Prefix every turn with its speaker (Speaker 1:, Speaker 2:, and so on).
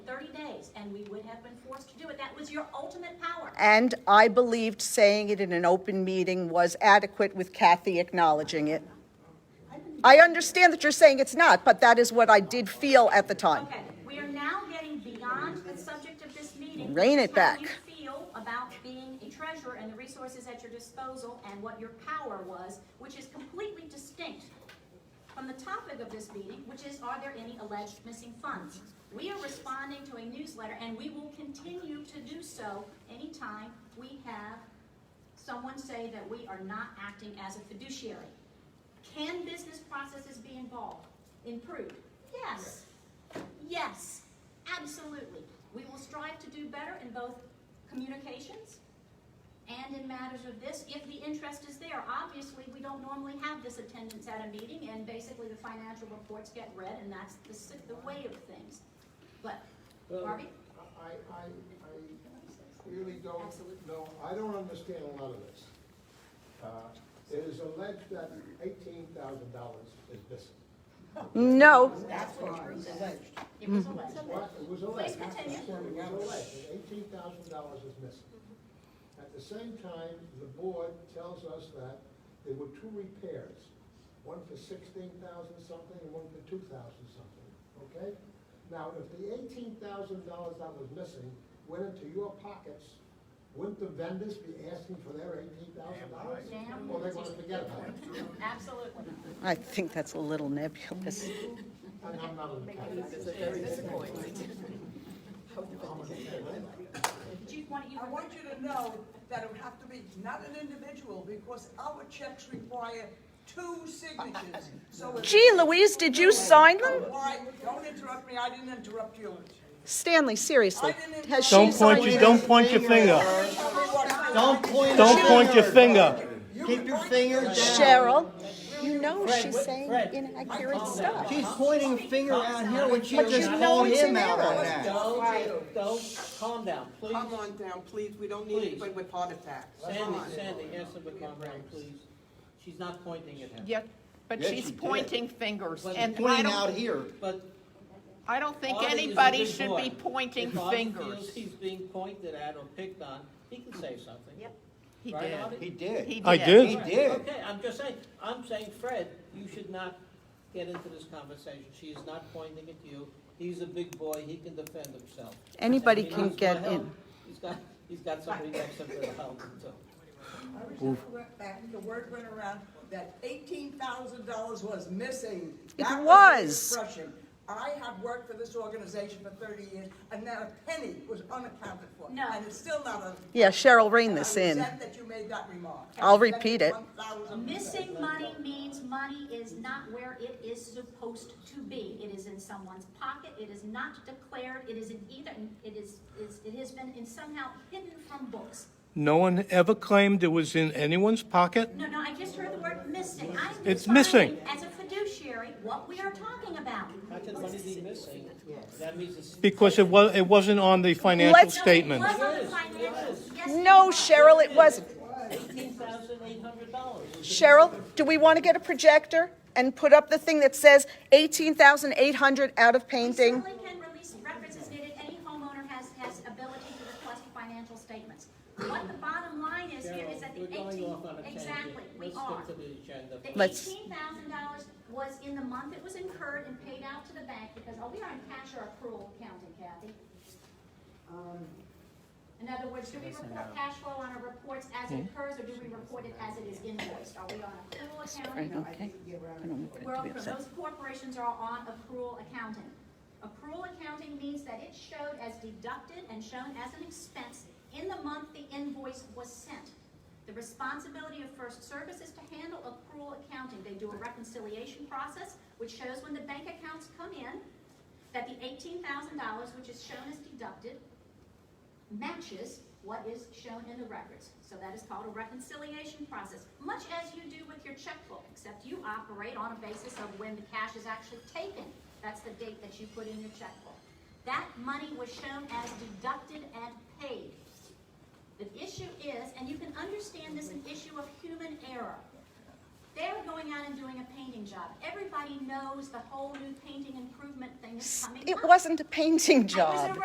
Speaker 1: ways, and we would have been forced to do it. That was your ultimate power.
Speaker 2: And I believed saying it in an open meeting was adequate with Kathy acknowledging it. I understand that you're saying it's not, but that is what I did feel at the time.
Speaker 1: Okay, we are now getting beyond the subject of this meeting.
Speaker 2: Rein it
Speaker 1: How
Speaker 2: back.
Speaker 1: you feel about being a treasurer and the resources at your disposal and what your power was, which is completely distinct from the topic of this meeting, which is, are there any alleged missing funds? We are responding to a newsletter, and we will continue to do so anytime we have someone say that we are not acting as a fiduciary. Can business processes be involved, improved? Yes. Yes, absolutely. We will strive to do better in both communications and in matters of this, if the interest is there. Obviously, we don't normally have this attendance at a meeting, and basically the financial reports get read, and that's the, si- the way of things. But,
Speaker 3: Well,
Speaker 1: Harvey?
Speaker 3: I, I, I really don't know, I don't understand a lot of this. Uh, It is alleged that eighteen thousand dollars is missing.
Speaker 2: No,
Speaker 1: It was alleged.
Speaker 3: What, it was
Speaker 1: Please
Speaker 3: alleged.
Speaker 1: continue.
Speaker 3: It was alleged, eighteen thousand dollars is missing. At the same time, the board tells us that there were two repairs, one for sixteen thousand something and one for two thousand something, okay? Now, if the eighteen thousand dollars that was missing went into your pockets, wouldn't the vendors be asking for their eighteen thousand dollars?
Speaker 1: Damn
Speaker 3: Or they wanna forget about it?
Speaker 1: Absolutely.
Speaker 2: I think that's a little nebulous.
Speaker 3: And I'm not an accountant.
Speaker 1: Chief, why don't you?
Speaker 4: I want you to know that it would have to be not an individual, because our checks require two signatures, so. if-
Speaker 2: Gee, Louise, did you sign them?
Speaker 4: Why, don't interrupt me, I didn't interrupt you.
Speaker 2: Stanley, seriously, has she
Speaker 5: Don't point
Speaker 2: signed
Speaker 5: your,
Speaker 2: them?
Speaker 5: don't point your finger.
Speaker 6: Don't point.
Speaker 5: Don't point your finger.
Speaker 6: Keep your finger down.
Speaker 2: Cheryl, you know she's
Speaker 6: what-
Speaker 2: saying
Speaker 6: Fred.
Speaker 2: inaccurate stuff.
Speaker 6: She's pointing a finger out here when she
Speaker 2: But you
Speaker 6: just
Speaker 2: know
Speaker 6: called
Speaker 2: it's
Speaker 6: him
Speaker 2: an
Speaker 6: out
Speaker 2: error.
Speaker 6: on that.
Speaker 7: Don't, don't, calm down, please.
Speaker 8: Come on down, please, we don't need
Speaker 7: Please.
Speaker 8: anybody with heart attacks. Come
Speaker 7: Sandy,
Speaker 8: on.
Speaker 7: Sandy, answer the calm down, please. She's not pointing at him.
Speaker 9: Yeah, but
Speaker 6: Yes,
Speaker 9: she's
Speaker 6: you did.
Speaker 9: pointing fingers,
Speaker 7: But
Speaker 9: and I
Speaker 6: Pointing out
Speaker 9: don't,
Speaker 6: here.
Speaker 7: But
Speaker 9: I don't think
Speaker 7: Audie is a
Speaker 9: anybody
Speaker 7: big
Speaker 9: should
Speaker 7: boy.
Speaker 9: be pointing
Speaker 7: if Audie feels
Speaker 9: fingers.
Speaker 7: he's being pointed at or picked on, he can say something. Yep.
Speaker 9: He
Speaker 7: Right,
Speaker 9: did.
Speaker 7: Audie?
Speaker 6: He did.
Speaker 9: He
Speaker 5: I
Speaker 9: did.
Speaker 5: did.
Speaker 6: did.
Speaker 7: Okay, I'm just saying, I'm saying, Fred, you should not get into this conversation. She is not pointing at you. He's a big boy, he can defend himself.
Speaker 2: Anybody
Speaker 7: And he
Speaker 2: can
Speaker 7: needs
Speaker 2: get
Speaker 7: my help.
Speaker 2: in.
Speaker 7: He's got, he's got somebody next to him that'll help him too.
Speaker 4: I was just correct back, the word went around that eighteen thousand dollars was missing.
Speaker 2: It
Speaker 4: That
Speaker 2: was.
Speaker 4: the expression. I have worked for this organization for thirty years, and not a penny was unaccounted for.
Speaker 1: No.
Speaker 4: And it's still not a.
Speaker 2: Yeah, Cheryl, rein this in.
Speaker 4: I resent that you made that remark.
Speaker 2: I'll repeat it.
Speaker 4: $1,000.
Speaker 1: Missing money means money is not where it is supposed to be. It is in someone's pocket, it is not declared, it is in either, it is, is- it has been in somehow hidden from books.
Speaker 5: No one ever claimed it was in anyone's pocket.
Speaker 1: No, no, I just heard the word missing. I'm
Speaker 5: It's
Speaker 1: defining
Speaker 5: missing.
Speaker 1: As a fiduciary, what we are talking about.
Speaker 7: How can money be missing? That means it's.
Speaker 5: Because it was, it wasn't on the financial
Speaker 2: Let's-
Speaker 5: statement.
Speaker 1: No, it was on the financials. Yes, it
Speaker 2: No,
Speaker 1: was.
Speaker 2: Cheryl, it wasn't.
Speaker 7: Eighteen thousand eight hundred dollars.
Speaker 2: Cheryl, do we want to get a projector and put up the thing that says 18,800 out of
Speaker 1: We
Speaker 2: painting?
Speaker 1: certainly can release records as needed. Any homeowner has, has ability to request financial statements. What the bottom line is here is that the
Speaker 7: We're going
Speaker 1: eighteen,
Speaker 7: off on a tangent.
Speaker 1: exactly, we
Speaker 7: Let's
Speaker 1: are.
Speaker 7: stick to the agenda.
Speaker 1: The
Speaker 2: Let's-
Speaker 1: eighteen thousand dollars was in the month it was incurred and paid out to the bank because, oh, we are in cash or accrual accounting, Kathy. In other words, do we report cash flow on our reports as
Speaker 2: Hmm?
Speaker 1: it occurs or do we report it as it is invoiced? Are we on accrual accounting?
Speaker 2: Okay.
Speaker 1: Well, those corporations are on accrual accounting. Accrual accounting means that it showed as deducted and shown as an expense in the month the invoice was sent. The responsibility of First Service is to handle accrual accounting. They do a reconciliation process, which shows when the bank accounts come in, that the eighteen thousand dollars, which is shown as deducted, matches what is shown in the records. So that is called a reconciliation process, much as you do with your checkbook, except you operate on a basis of when the cash is actually taken. That's the date that you put in your checkbook. That money was shown as deducted and paid. The issue is, and you can understand this, an issue of human error. They're going out and doing a painting job. Everybody knows the whole new painting improvement thing is coming up.
Speaker 2: It wasn't a painting
Speaker 1: I was
Speaker 2: job.